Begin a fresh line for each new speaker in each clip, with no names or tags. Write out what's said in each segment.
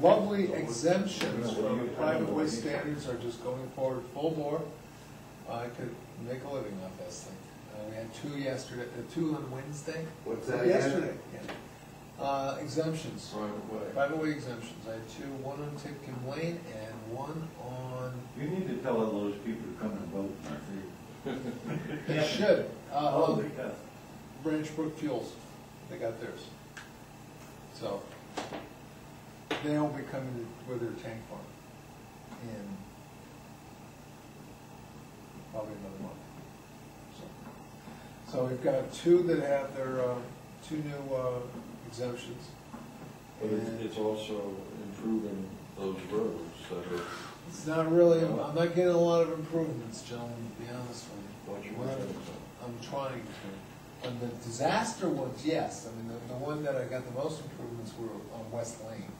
lovely exemptions from private way standards are just going forward full bore. I could make a living off this thing. Uh, we had two yesterday, uh, two on Wednesday.
What's that again?
Yesterday, yeah. Uh, exemptions,
Right, what?
private way exemptions. I had two, one on Tipton Lane and one on,
You need to tell all those people to come and vote, Murphy.
they should, uh,
Oh,
on
they got-
Branch Brook Fuels, they got theirs. So, they'll be coming with their tank farm in probably another month. So- So we've got two that have their, uh, two new uh, exemptions.
But it-
And
it's also improving those roads, so that
it's not really, I'm not getting a lot of improvements, gentlemen, to be honest with you.
what you were
Well,
saying.
I'm trying to. On the disaster ones, yes, I mean, the, the one that I got the most improvements were on West Lane,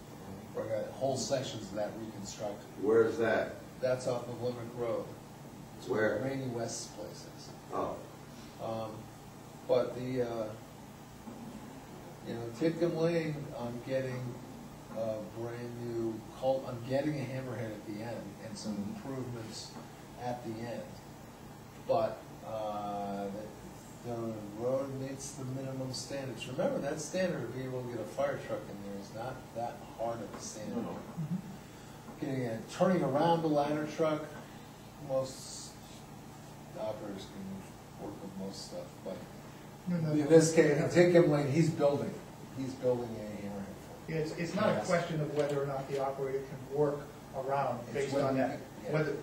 where I got whole sections of that reconstructed.
Where's that?
That's off of Limerick Road. It's
Where?
Rainy West's place is.
Oh,
Um, But the, uh, you know, Titcomb Lane, I'm getting a brand new cul, I'm getting a hammerhead at the end and some
Mm-hmm.
improvements at the end. But, uh, the the road meets the minimum standards. Remember, that standard of being able to get a fire truck in there is not that hard of a standard
No.
getting a, uh, turning around the ladder truck, most operators can work with most stuff, but in this case, in Tinkham Lane, he's building, he's building a hammerhead.
It's, it's not a question of whether or not the operator can work around
It's
based
whether
on
you
that.
can-
Whether,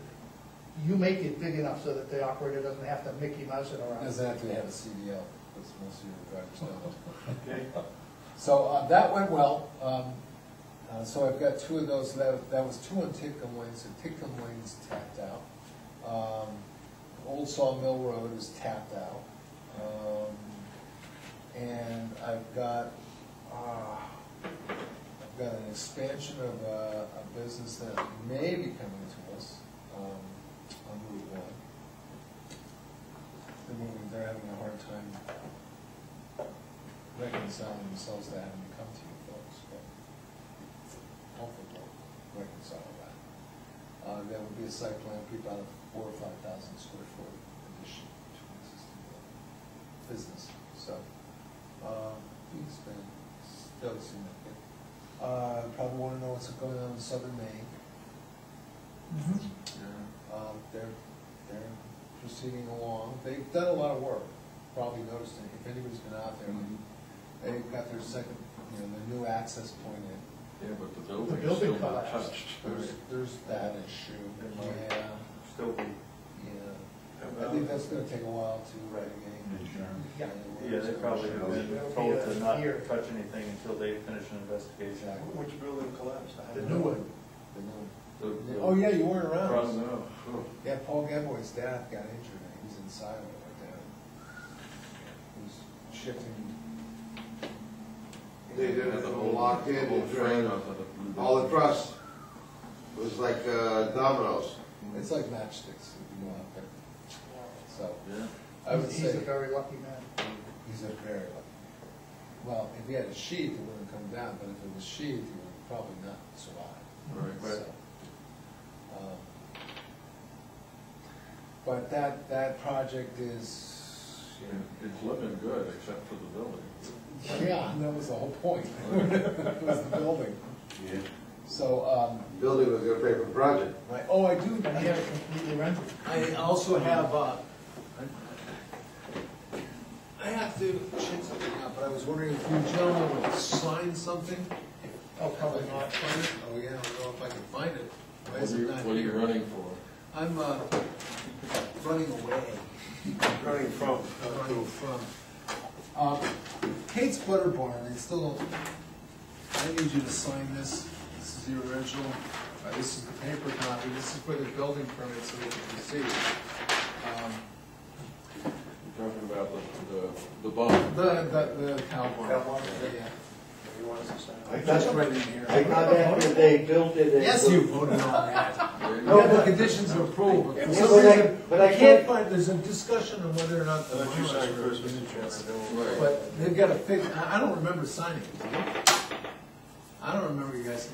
you make it big enough so that the operator doesn't have to Mickey Mouse it
truck.
around.
Doesn't have to have a CDL, because most of your drivers don't.
Okay,
So uh, that went well, um, uh, so I've got two of those, that, that was two on Tinkham Lane, so Tinkham Lane's tapped out. Um, Old Sawmill Road is tapped out. Um, And I've got, uh, I've got an expansion of a, a business that may be coming to us, um, on Route One. They're moving, they're having a hard time reconciling themselves to having to come to you folks, but hopefully they'll reconcile that. Uh, there would be a site plan for about four or five thousand square foot addition to an existing building, business, so, uh, it's been still significant. Uh, probably wanna know what's going on in southern Maine.
Mm-hmm.
Um, they're, they're proceeding along, they've done a lot of work, probably noticed it, if anybody's been out there, they've got their second, you know, their new access point in.
Yeah, but the
The
building's
building
still not
collapsed.
touched.
There's, there's that issue, yeah,
still be.
yeah. I think that's gonna take a while to regulate.
Insurance.
Yeah.
Yeah, they probably have been told to not touch anything until they finish an investigation.
Exactly.
Which building collapsed? I
The
don't
new
know.
one,
The new-
The- the-
Oh, yeah, you weren't
Across
around.
now. Oh.
Yeah, Paul Gamboy's dad got injured, and he's inside of it right there. He's shifting.
they did it, locked in,
The whole
and drained
frame of the-
all the trust. It was like uh, dominoes.
It's like matchsticks, if you go out there. So,
Yeah.
I would
He's- he's
say
a very lucky man.
he's a very lucky. Well, if he had a sheath, it wouldn't come down, but if it was sheathed, he would probably not survive.
Right, right.
So, um, But that, that project is,
Yeah, It's looking good, except for the building.
yeah, that was the whole point. It was the building.
Yeah.
So, um,
Building was gonna pay for the project.
right, oh, I do,
And he had it completely rented.
I also have, uh, I have to check something out, but I was wondering if you gentlemen would sign something?
Oh, probably
If I can
not.
find it. Oh, yeah, I don't know if I can find it. Why
What
is
are
it
you,
not
what are you
here?
running for?
I'm, uh, running away.
Running from.
I'm running from. Uh, Kate's Butter Barn, they still, don't- I need you to sign this, this is the original, Uh, this is the paper copy, this is for the building permit, so we can see. it. Um,
You're talking about the, the, the bond.
The, the, the cow barn.
Cow barn?
Yeah.
You want us to sign?
That's right in here.
I got after they built it.
Yes, you voted on that.
Yeah,
You have the conditions of approval, but for some
But I-
reason,
but I
I can't
can't-
find, there's a discussion on whether or not the.
Let you
minors
sign
were-
first, Mr. Chairman.
Right.
But they've got to figure, I, I don't remember signing it. did you? I don't remember you guys